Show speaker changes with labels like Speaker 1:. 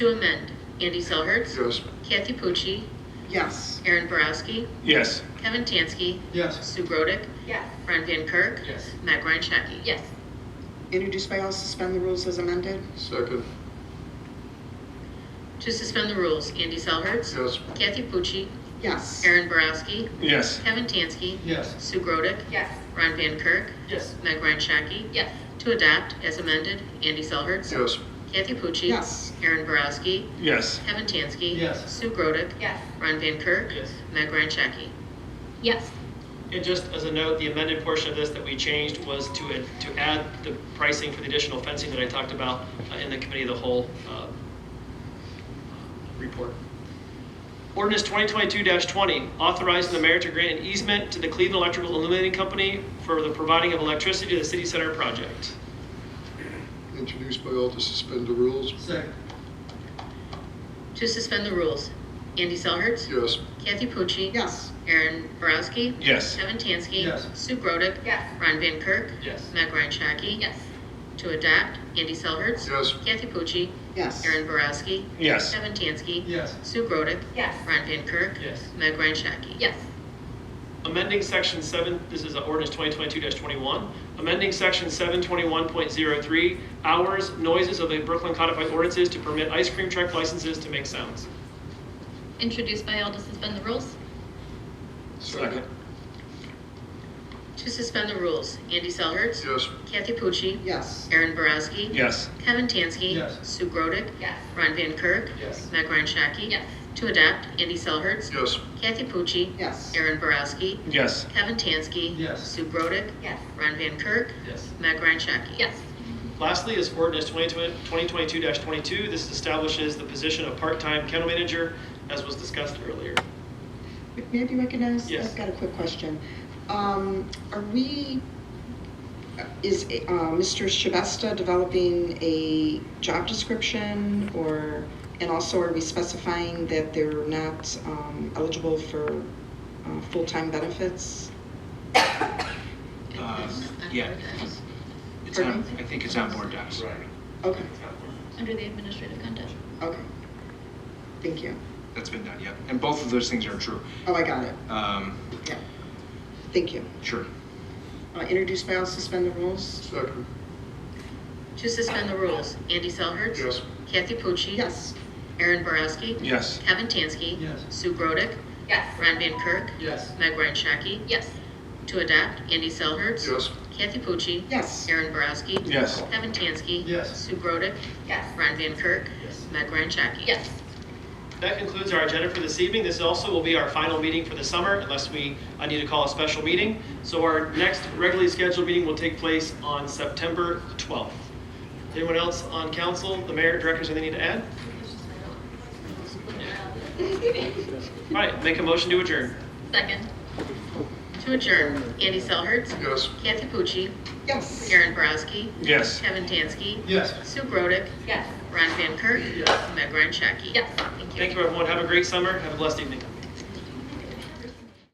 Speaker 1: To amend, Andy Selhertz.
Speaker 2: Yes.
Speaker 1: Kathy Pucci.
Speaker 3: Yes.
Speaker 1: Aaron Borowski.
Speaker 2: Yes.
Speaker 1: Kevin Tansky.
Speaker 2: Yes.
Speaker 1: Sue Grodick.
Speaker 4: Yes.
Speaker 1: Ron Van Kirk.
Speaker 2: Yes.
Speaker 1: Matt Ryan Shaki.
Speaker 4: Yes.
Speaker 3: Introduced by all, suspend the rules as amended?
Speaker 2: Second.
Speaker 1: To suspend the rules, Andy Selhertz.
Speaker 2: Yes.
Speaker 1: Kathy Pucci.
Speaker 3: Yes.
Speaker 1: Aaron Borowski.
Speaker 2: Yes.
Speaker 1: Kevin Tansky.
Speaker 2: Yes.
Speaker 1: Sue Grodick.
Speaker 4: Yes.
Speaker 1: Ron Van Kirk.
Speaker 2: Yes.
Speaker 1: Meg Ryan Shaki.
Speaker 4: Yes.
Speaker 1: To adopt, as amended, Andy Selhertz.
Speaker 2: Yes.
Speaker 1: Kathy Pucci.
Speaker 3: Yes.
Speaker 1: Aaron Borowski.
Speaker 2: Yes.
Speaker 1: Kevin Tansky.
Speaker 2: Yes.
Speaker 1: Sue Grodick.
Speaker 4: Yes.
Speaker 1: Ron Van Kirk.
Speaker 5: Yes.
Speaker 1: Meg Ryan Shaki.
Speaker 4: Yes.
Speaker 5: And just as a note, the amended portion of this that we changed was to, to add the pricing for the additional fencing that I talked about uh, in the committee of the whole uh, report. Ordinance 2022-20, authorizing the mayor to grant an easement to the Cleveland Electrical Illuminating Company for the providing of electricity to the city center project.
Speaker 2: Introduced by all to suspend the rules.
Speaker 5: Second.
Speaker 1: To suspend the rules, Andy Selhertz.
Speaker 2: Yes.
Speaker 1: Kathy Pucci.
Speaker 3: Yes.
Speaker 1: Aaron Borowski.
Speaker 2: Yes.
Speaker 1: Kevin Tansky.
Speaker 5: Yes.
Speaker 1: Sue Grodick.
Speaker 4: Yes.
Speaker 1: Ron Van Kirk.
Speaker 5: Yes.
Speaker 1: Meg Ryan Shaki.
Speaker 4: Yes.
Speaker 1: To adopt, Andy Selhertz.
Speaker 2: Yes.
Speaker 1: Kathy Pucci.
Speaker 3: Yes.
Speaker 1: Aaron Borowski.
Speaker 2: Yes.
Speaker 1: Kevin Tansky.
Speaker 5: Yes.
Speaker 1: Sue Grodick.
Speaker 4: Yes.
Speaker 1: Ron Van Kirk.
Speaker 5: Yes.
Speaker 1: Meg Ryan Shaki.
Speaker 4: Yes.
Speaker 5: Amending section seven, this is uh, ordinance 2022-21, amending section 721.03, hours, noises of the Brooklyn codified ordinances to permit ice cream truck licenses to make sounds.
Speaker 4: Introduced by all to suspend the rules?
Speaker 2: Second.
Speaker 1: To suspend the rules, Andy Selhertz.
Speaker 2: Yes.
Speaker 1: Kathy Pucci.
Speaker 3: Yes.
Speaker 1: Aaron Borowski.
Speaker 2: Yes.
Speaker 1: Kevin Tansky.
Speaker 5: Yes.
Speaker 1: Sue Grodick.
Speaker 4: Yes.
Speaker 1: Ron Van Kirk.
Speaker 5: Yes.
Speaker 1: Meg Ryan Shaki.
Speaker 4: Yes.
Speaker 1: To adopt, Andy Selhertz.
Speaker 2: Yes.
Speaker 1: Kathy Pucci.
Speaker 3: Yes.
Speaker 1: Aaron Borowski.
Speaker 2: Yes.
Speaker 1: Kevin Tansky.
Speaker 5: Yes.
Speaker 1: Sue Grodick.
Speaker 4: Yes.
Speaker 1: Ron Van Kirk.
Speaker 5: Yes.
Speaker 1: Meg Ryan Shaki.
Speaker 4: Yes.
Speaker 5: Lastly is ordinance 2022-22. This establishes the position of part-time kennel manager, as was discussed earlier.
Speaker 3: May I be recognized?
Speaker 5: Yes.
Speaker 3: I've got a quick question. Um, Are we, is uh, Mr. Shabesta developing a job description or, and also are we specifying that they're not um, eligible for uh, full-time benefits?
Speaker 6: Um, Yeah, it's on, I think it's on board docs. Right.
Speaker 3: Okay,
Speaker 4: Under the administrative conduct?
Speaker 3: okay. Thank you.
Speaker 6: That's been done, yep. And both of those things are true.
Speaker 3: Oh, I got it.
Speaker 6: Um,
Speaker 3: Yeah. Thank you.
Speaker 6: Sure.
Speaker 3: Uh, Introduce by all, suspend the rules?
Speaker 2: Second.
Speaker 1: To suspend the rules, Andy Selhertz.
Speaker 2: Yes.
Speaker 1: Kathy Pucci.
Speaker 3: Yes.
Speaker 1: Aaron Borowski.
Speaker 2: Yes.
Speaker 1: Kevin Tansky.
Speaker 5: Yes.
Speaker 1: Sue Grodick.
Speaker 4: Yes.
Speaker 1: Ron Van Kirk.
Speaker 5: Yes.
Speaker 1: Meg Ryan Shaki.
Speaker 4: Yes.
Speaker 1: To adopt, Andy Selhertz.
Speaker 2: Yes.
Speaker 1: Kathy Pucci.
Speaker 3: Yes.
Speaker 1: Aaron Borowski.
Speaker 2: Yes.
Speaker 1: Kevin Tansky.
Speaker 5: Yes.
Speaker 1: Sue Grodick.
Speaker 4: Yes.
Speaker 1: Ron Van Kirk.
Speaker 5: Yes.
Speaker 1: Meg Ryan Shaki.
Speaker 4: Yes.
Speaker 5: That concludes our agenda for this evening. This also will be our final meeting for the summer, unless we, I need to call a special meeting. So our next regularly scheduled meeting will take place on September 12th. Anyone else on council, the mayor, directors, anything to add? All right, make a motion to adjourn.
Speaker 4: Second.
Speaker 1: To adjourn, Andy Selhertz.
Speaker 2: Yes.
Speaker 1: Kathy Pucci.
Speaker 3: Yes.
Speaker 1: Aaron Borowski.
Speaker 2: Yes.
Speaker 1: Kevin Tansky.
Speaker 2: Yes.
Speaker 1: Sue Grodick.
Speaker 4: Yes.
Speaker 1: Ron Van Kirk.
Speaker 5: Yes.
Speaker 1: Meg Ryan Shaki.
Speaker 4: Yes.
Speaker 1: Thank you.
Speaker 5: Thank you, everyone. Have a great summer. Have a blessed evening.